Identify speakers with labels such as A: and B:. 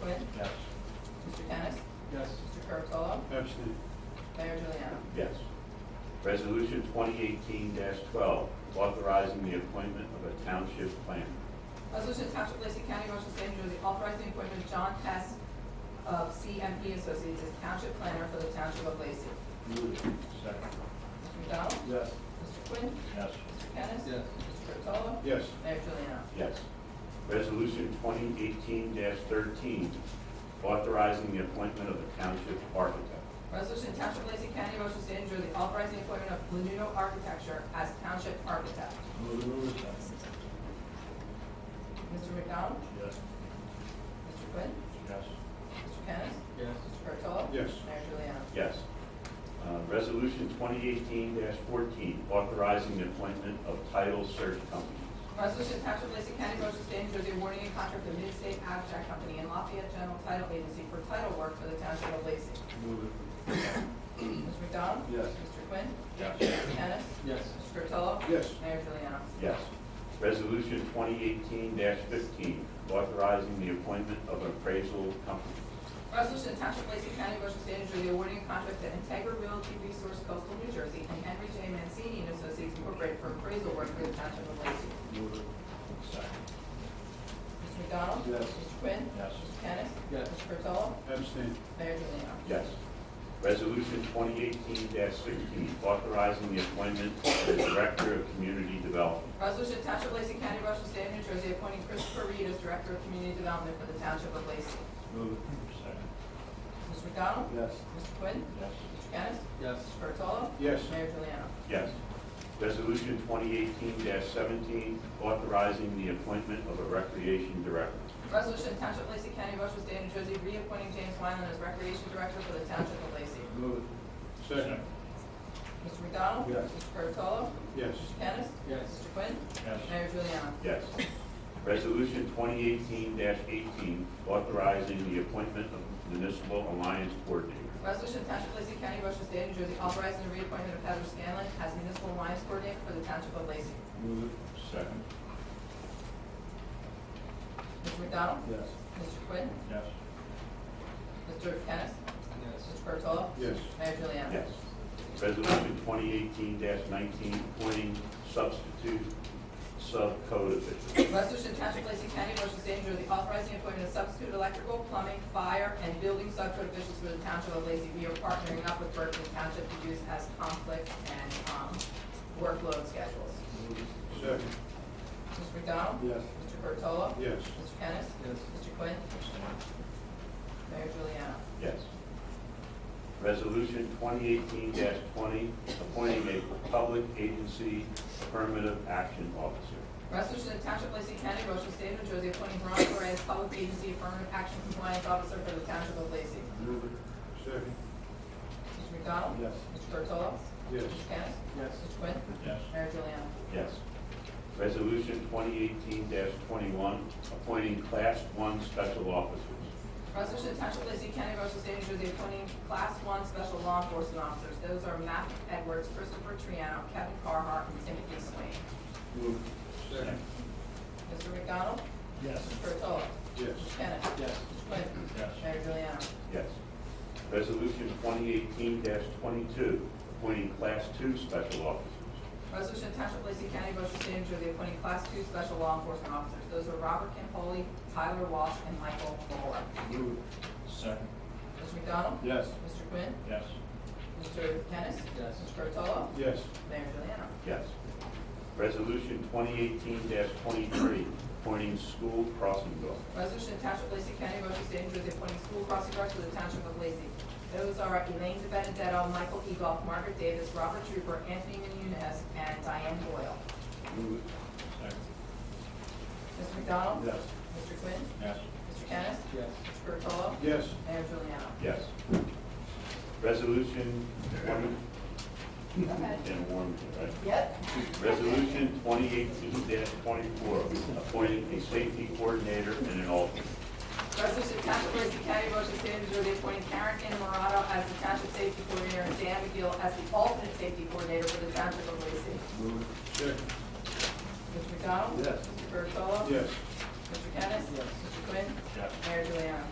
A: Quinn,
B: Yes.
A: Mr. Kennis,
C: Yes.
A: Mr. Curatolo,
C: Abstain.
A: Mayor Juliana.
C: Yes.
B: Resolution 2018-12, authorizing the appointment of a township planner.
A: Resolution to Township of Lacey County, Ocean State, New Jersey, authorizing the appointment of John Hess of CMP Associates as Township Planner for the Township of Lacey.
B: Move it. Second.
A: Mr. McDonald?
C: Yes.
A: Mr. Quinn?
B: Yes.
A: Mr. Kennis?
C: Yes.
A: Mr. Curatolo?
C: Yes.
A: Mayor Juliana.
B: Yes. Resolution 2018-13, authorizing the appointment of a township architect.
A: Resolution to Township of Lacey County, Ocean State, New Jersey, authorizing the appointment of Lenuno Architecture as Township Architect.
C: Move it.
A: Mr. McDonald?
B: Yes.
A: Mr. Quinn?
B: Yes.
A: Mr. Kennis?
C: Yes.
A: Mr. Curatolo?
C: Yes.
A: Mayor Juliana.
B: Yes. Uh, Resolution 2018-14, authorizing the appointment of title search companies.
A: Resolution to Township of Lacey County, Ocean State, New Jersey, awarding a contract to Midstate Abstract Company and Lafayette General Title Agency for title work for the Township of Lacey.
C: Move it.
A: Mr. McDonald?
C: Yes.
A: Mr. Quinn?
B: Yes.
A: Mr. Kennis?
C: Yes.
A: Mr. Curatolo?
C: Yes.
A: Mayor Juliana.
B: Yes. Resolution 2018-15, authorizing the appointment of appraisal company.
A: Resolution to Township of Lacey County, Ocean State, New Jersey, awarding a contract to Integra Realty Resource Coastal New Jersey and Henry J. Mancini and Associates Incorporated for appraisal work for the Township of Lacey.
C: Move it.
A: Mr. McDonald?
C: Yes.
A: Mr. Quinn?
B: Yes.
A: Mr. Kennis?
C: Yes.
A: Mr. Curatolo?
C: Abstain.
A: Mayor Juliana.
B: Yes. Resolution 2018-16, authorizing the appointment of the Director of Community Development.
A: Resolution to Township of Lacey County, Ocean State, New Jersey, appointing Christopher Reed as Director of Community Development for the Township of Lacey.
C: Move it.
A: Mr. McDonald?
C: Yes.
A: Mr. Quinn?
B: Yes.
A: Mr. Kennis?
C: Yes.
A: Mr. Curatolo?
C: Yes.
A: Mayor Juliana.
B: Yes. Resolution 2018-17, authorizing the appointment of a Recreation Director.
A: Resolution to Township of Lacey County, Ocean State, New Jersey, reappointing James Wyland as Recreation Director for the Township of Lacey.
C: Move it. Second.
A: Mr. McDonald?
C: Yes.
A: Mr. Curatolo?
C: Yes.
A: Mr. Kennis?
C: Yes.
A: Mr. Quinn?
C: Yes.
A: Mayor Juliana.
B: Yes. Resolution 2018-18, authorizing the appointment of Municipal Alliance Coordinator.
A: Resolution to Township of Lacey County, Ocean State, New Jersey, authorizing the reappointment of Heather Scanlon as Municipal Alliance Coordinator for the Township of Lacey.
C: Move it.
B: Second.
A: Mr. McDonald?
C: Yes.
A: Mr. Quinn?
B: Yes.
A: Mr. Kennis?
C: Yes.
A: Mr. Curatolo?
C: Yes.
A: Mayor Juliana.
B: Yes. Resolution 2018-19, appointing substitute sub-code official.
A: Resolution to Township of Lacey County, Ocean State, New Jersey, authorizing the appointment of substitute electrical, plumbing, fire, and building subcode officials for the Township of Lacey. We are partnering up with Berkeley Township to use as conflict and um, workload schedules.
C: Move it. Second.
A: Mr. McDonald?
C: Yes.
A: Mr. Curatolo?
C: Yes.
A: Mr. Kennis?
C: Yes.
A: Mr. Quinn? Mayor Juliana.
B: Yes. Resolution 2018-20, appointing a public agency affirmative action officer.
A: Resolution of Township of Lacey County, Ocean State, New Jersey, appointing Ron Correa as Public Agency Affirmative Action Compliance Officer for the Township of Lacey.
C: Move it. Second.
A: Mr. McDonald?
C: Yes.
A: Mr. Curatolo?
C: Yes.
A: Mr. Kennis?
C: Yes.
A: Mr. Quinn?
B: Yes.
A: Mayor Juliana.
B: Yes. Resolution 2018-21, appointing class one special officers.
A: Resolution to Township of Lacey County, Ocean State, New Jersey, appointing Class 1 Special Law Enforcement Officers. Those are Matt Edwards, Christopher Triano, Kevin Carhart, and Timothy Swain.
C: Move it. Second.
A: Mr. McDonald?
C: Yes.
A: Mr. Curatolo?
C: Yes.
A: Mr. Kennis?
C: Yes.
A: Mr. Quinn?
C: Yes.
A: Mayor Juliana.
B: Yes. Resolution 2018-22, appointing class two special officers.
A: Resolution to Township of Lacey County, Ocean State, New Jersey, appointing Class 2 Special Law Enforcement Officers. Those are Robert Campoli, Tyler Walsh, and Michael Bowler.
C: Move it. Second.
A: Mr. McDonald?
C: Yes.
A: Mr. Quinn?
C: Yes.
A: Mr. Kennis?
C: Yes.
A: Mr. Curatolo?
C: Yes.
A: Mayor Juliana.
B: Yes. Resolution 2018-23, appointing school crossing guard.
A: Resolution to Township of Lacey County, Ocean State, New Jersey, appointing school crossing guards for the Township of Lacey. Those are Elaine De Benedetto, Michael Egolf, Margaret Davis, Robert Trooper, Anthony Menunez, and Diane Boyle.
C: Move it.
A: Mr. McDonald?
C: Yes.
A: Mr. Quinn?
C: Yes.
A: Mr. Kennis?
C: Yes.
A: Mr. Curatolo?
C: Yes.
A: Mayor Juliana.
B: Yes. Resolution 20,
A: Go ahead.
B: and Warren, right?
A: Yep.
B: Resolution 2018-24, appointing a safety coordinator and an alternate.
A: Resolution to Township of Lacey County, Ocean State, New Jersey, appointing Karen N. Morado as the Township Safety Coordinator and Dan McGill as the alternate safety coordinator for the Township of Lacey.
C: Move it. Second.
A: Mr. McDonald?
C: Yes.
A: Mr. Curatolo?
C: Yes.
A: Mr. Kennis?
C: Yes.
A: Mr. Quinn?
C: Yes.
A: Mayor Juliana.